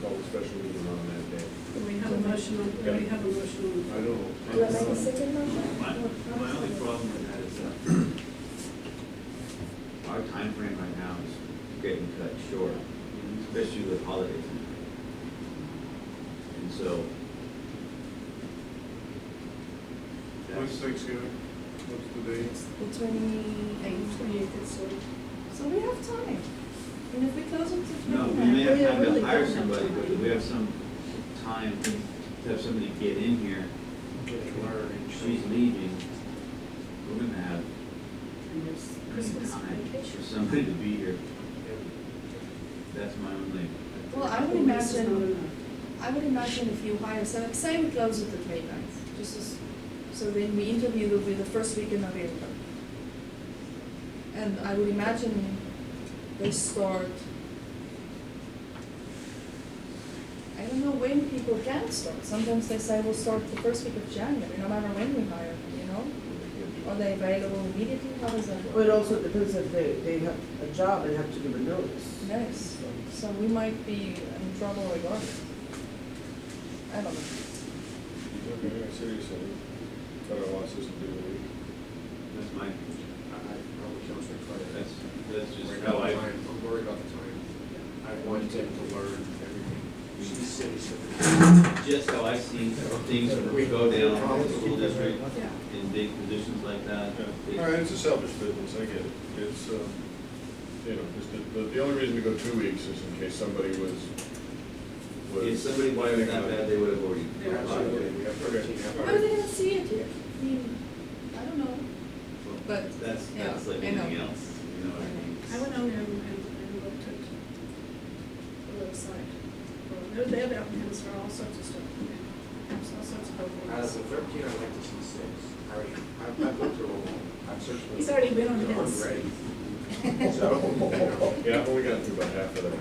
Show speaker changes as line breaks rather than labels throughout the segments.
special meeting on that day.
Do we have a motion on, do we have a motion
I don't.
Do you want to make a second motion?
My, my only problem with that is that our timeframe right now is getting cut short, especially with holidays. And so.
When's
that's-
Thanksgiving? What's the date?
It's the twenty-eighth.
on twenty-eighth, so
So we have time. And if we close it to
No, we
midnight.
may have time
we really
to
don't
hire
have
somebody, but
time.
we have some time to have somebody get in here. She's leaving. We're gonna have
and there's Christmas
time for
vacation.
somebody to be here. That's my only.
Well, I would
Four weeks is
imagine-
not enough.
I would imagine if you hire, so like, say we close it the 29th, just as, so then we interview will be the first week in November. And I would imagine they start, I don't know when people can start. Sometimes they say we'll start the first week of January, no matter when we hire them, you know? Are they available immediately? How does that
Well,
work?
it also depends if they, they have a job and have to give a notice.
Yes, so we might be in trouble regardless. I don't know.
You're in New York City, so we cut our losses and do a week.
That's my,
I probably can't say
that's,
Friday.
that's just
Right
how
now,
I.
time, I'm worried about the time. I want them to learn everything. She's city, so.
just how I see things when we go down in the school district
Yeah.
in big positions like that.
Yeah. All right, it's a selfish business, I get it. It's, um, you know, just the, the- the only reason to go two weeks is in case somebody was, was.
If somebody wanted it that bad, they would have already.
Yeah, absolutely. We have thirteen half
How are they
hours.
gonna see it here? I mean, I don't know. But,
That's,
yeah,
that's like
I know.
anything else, you know what I mean?
I went on there and, and looked at the website. Well, They have applicants for all sorts of stuff, and all sorts of
Out of
programs.
the thirteen, I'd like to see six. I already, I've, I've looked through them all. I've searched. for
He's
them.
already been on
They're
his.
already ready. So,
Yeah, I've only gotten through about half of that.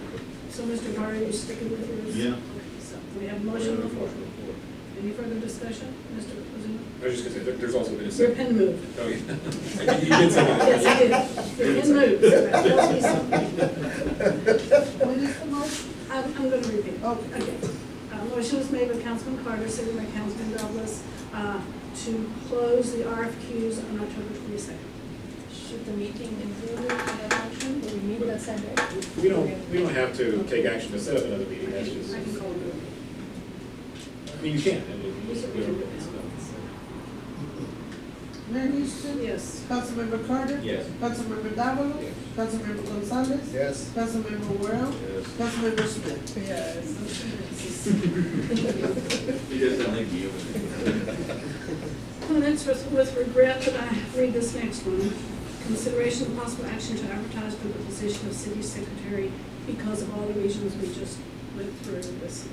So Mr. Carter, you sticking with yours?
Yeah.
Okay, So we have a motion
Uh,
on the floor. Any further discussion, Mr. President?
I was just gonna say, there- there's also been a
Your
second.
pen moved.
Oh, yeah. You did say that.
Yes, it is. Your pen moved. So that tells me something.
When is the most?
I'm, I'm gonna repeat.
Okay.
Uh, Motion was made by Councilman Carter, seconded by Councilman Douglas, uh, to close the RFQs on October twenty-second.
Should the meeting include that function? Do we meet that same day?
We don't, we don't have to take action to set up another meeting, that's just,
I can
I
call it.
mean, you can, I mean, you just- we don't- it's not-
Mayor Houston?
Yes.
Councilmember Carter?
Yes.
Councilmember Davalos? Councilmember Gonzalez?
Yes.
Councilmember Worel?
Yes.
Councilmember Smith?
Yes.
He doesn't like you.
And it's with with regret that I read this next one. Consideration of possible action to advertise for the position of city secretary because of all the reasons we just went through this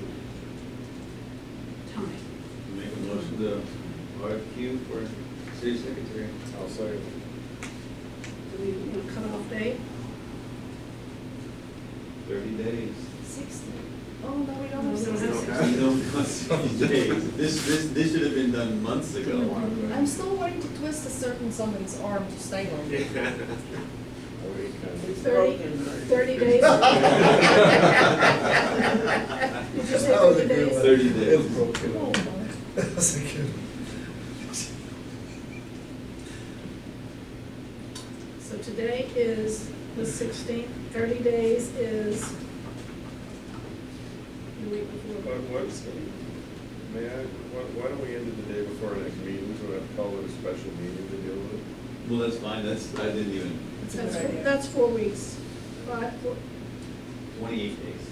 time.
Make a motion to RFQ for city secretary.
I'll say,
Do we, you know, cut off date?
Thirty days.
Sixty. Oh, no, we don't
No,
have
we don't
sixty.
have
You don't want 60 days. This, this, this should have been done months ago.
I'm still wanting to twist a certain somebody's arm to stay on.
I would eat kind of-
Thirty,
Broken.
thirty days? Did you say thirty days?
Thirty days.
Oh, well.
So today is the sixteenth, thirty days is the week before.
What, what's, may I, why, why don't we end it the day before our next meeting, so we have to call it a special meeting to deal with it?
Well, that's fine, that's, I didn't even,
That's, four- that's four weeks. Five, four-
twenty-eight days.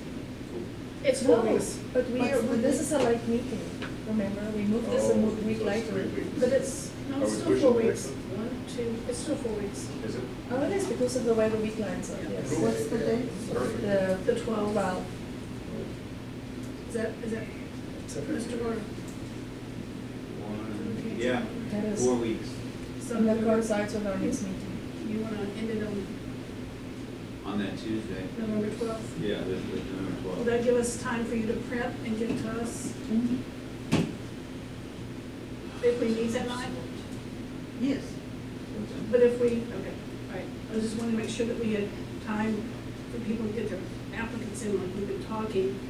it's four
No,
weeks.
but we are, but this is a late meeting, remember? We moved this a mo-
Oh,
week
so it's
later.
three weeks.
But it's, no,
Are
it's
we
still four
pushing the
weeks.
next
One, two, it's still four weeks.
Is it?
Oh, it is because of the way the week lines are, yes.
Cool.
What's the date?
Perfect.
The
The twelve,
twelve.
is that, is that, Mr. Gordon?
One, yeah,
That is-
four weeks
So
So that
you
coincides with our next meeting.
wanna end it on
on that Tuesday.
November twelfth?
Yeah, the, the November
Will
twelfth.
that give us time for you to print and get to us if we need that night?
Yes.
But if we, okay, all right, I just wanna make sure that we had time for people to get their applicants in, like we've been talking,